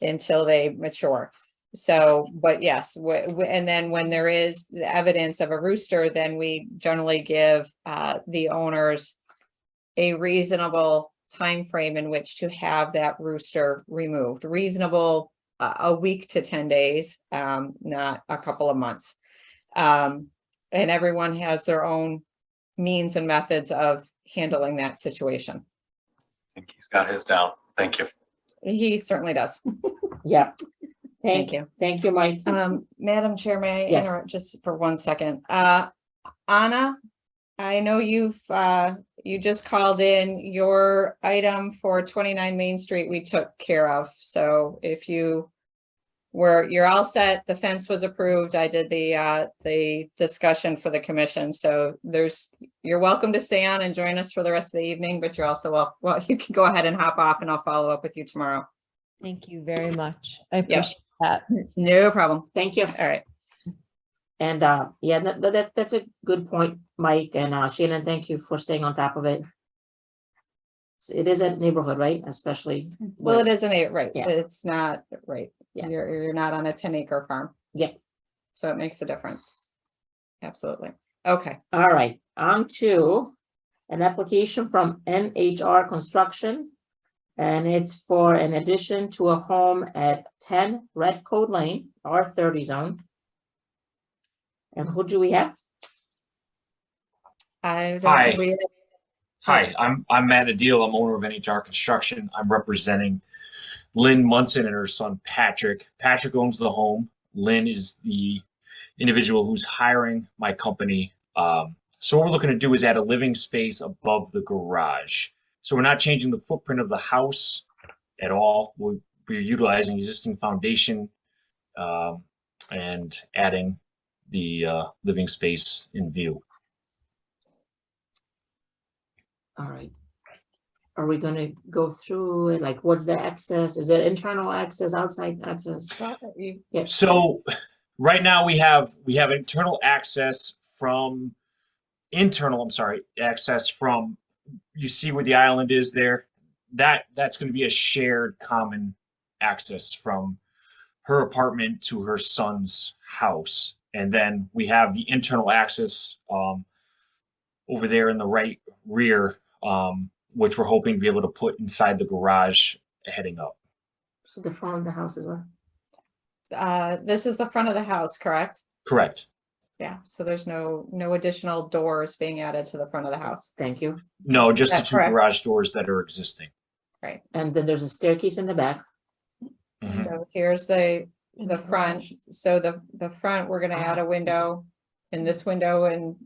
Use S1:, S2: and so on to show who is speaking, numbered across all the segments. S1: until they mature. So, but yes, wh- wh- and then when there is the evidence of a rooster, then we generally give uh the owners a reasonable time frame in which to have that rooster removed, reasonable a, a week to ten days, um, not a couple of months. Um, and everyone has their own means and methods of handling that situation.
S2: think he's got his down. Thank you.
S1: He certainly does.
S3: Yeah.
S1: Thank
S3: Thank,
S1: you.
S3: thank you, Mike.
S1: Um, Madam Chair, may I
S3: Yes.
S1: interrupt just for one second? Uh, Anna, I know you've, uh, you just called in your item for twenty-nine Main Street we took care of, so if you were, you're all set, the fence was approved, I did the, uh, the discussion for the commission, so there's, you're welcome to stay on and join us for the rest of the evening, but you're also, wel- well, you can go ahead and hop off and I'll follow up with you tomorrow.
S4: Thank you very much. I appreciate that.
S1: No problem,
S3: Thank you.
S1: all right.
S3: And uh, yeah, that, that- that, that's a good point, Mike and uh, Shannon, thank you for staying on top of it. S- It is a neighborhood, right? Especially.
S1: Well,
S3: with-
S1: it isn't a, right,
S3: Yeah.
S1: it's not, right,
S3: Yeah.
S1: you're, you're not on a ten acre farm.
S3: Yep.
S1: So it makes a difference. Absolutely. Okay,
S3: All right, on to an application from NHR Construction. And it's for an addition to a home at ten Red Code Lane, R thirty zone. And who do we have?
S1: I
S2: Hi.
S1: don't, we,
S2: Hi, I'm, I'm Matt Adil. I'm owner of NHR Construction. I'm representing Lynn Munson and her son Patrick. Patrick owns the home. Lynn is the individual who's hiring my company. Um, so what we're looking to do is add a living space above the garage. So we're not changing the footprint of the house at all. We're, we're utilizing existing foundation um, and adding the uh, living space in view.
S3: All right. Are we gonna go through, it? like, what's the access? Is it internal access, outside access?
S2: So right now we have, we have internal access from, internal, I'm sorry, access from, you see where the island is there? That, that's gonna be a shared common access from her apartment to her son's house. And then we have the internal access, um, over there in the right rear, um, which we're hoping to be able to put inside the garage heading up.
S3: So the front of the house as well?
S1: uh, this is the front of the house, correct?
S2: Correct?
S1: Yeah, so there's no, no additional doors being added to the front of the house.
S3: Thank you.
S2: No, just the
S1: That's
S2: two
S1: correct.
S2: garage doors that are existing.
S3: And then there's a staircase in the back.
S2: Mhm.
S1: So here's the,
S4: And
S1: the front, so the, the front, we're gonna
S3: Uh-huh.
S1: add a window in this window and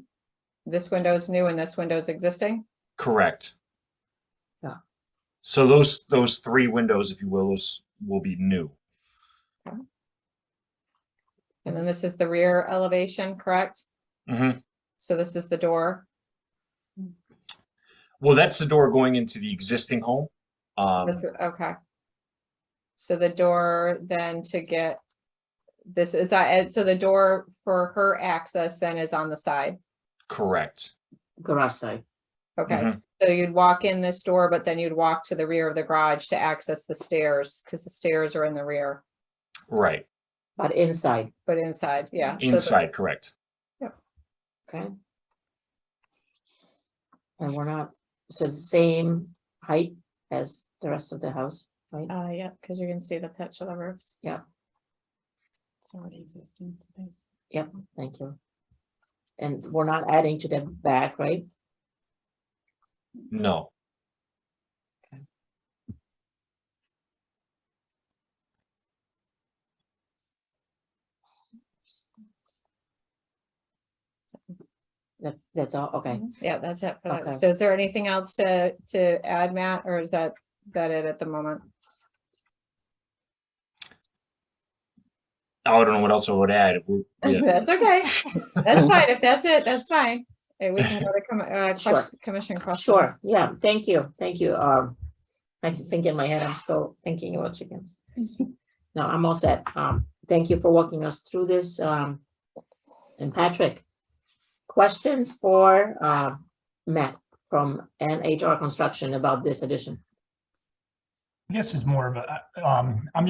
S1: this window's new and this window's existing?
S2: Correct.
S3: Yeah.
S2: So those, those three windows, if you will, those will be new.
S1: And then this is the rear elevation, correct?
S2: Mhm.
S1: So this is the door?
S2: Well, that's the door going into the existing home. Um,
S1: That's, okay. So the door then to get, this is, uh, and so the door for her access then is on the side,
S2: correct.
S3: garage side.
S1: okay?
S2: Mhm.
S1: So you'd walk in this door, but then you'd walk to the rear of the garage to access the stairs, because the stairs are in the rear,
S2: Right.
S3: But inside,
S1: but inside, yeah. so the-
S2: Inside, correct.
S3: okay? And we're not, so it's the same height as the rest of the house, right?
S4: Uh, yeah, because you're gonna see the pitch of the roofs.
S3: Yeah.
S4: It's already existing space.
S3: Yep, thank you. And we're not adding to the back, right?
S2: No.
S3: That's, that's all, okay.
S1: Yeah, that's it. for that.
S3: Mm-hmm. Okay.
S1: So is there anything else to, to add, Matt, or is that, that it at the moment?
S2: Oh, I don't know what else I would add. We're- yeah.
S1: That's okay. That's fine. If that's it, that's fine. Uh, We can go to com- uh,
S3: Sure.
S1: question- commission questions.
S3: Sure, yeah, thank you, thank you. Um, I th- think in my head, I'm still thinking about chickens. No, I'm all set. Um, thank you for walking us through this. Um, and Patrick, questions for, uh, Matt from NHR Construction about this addition?
S5: I guess it's more of a, um, I'm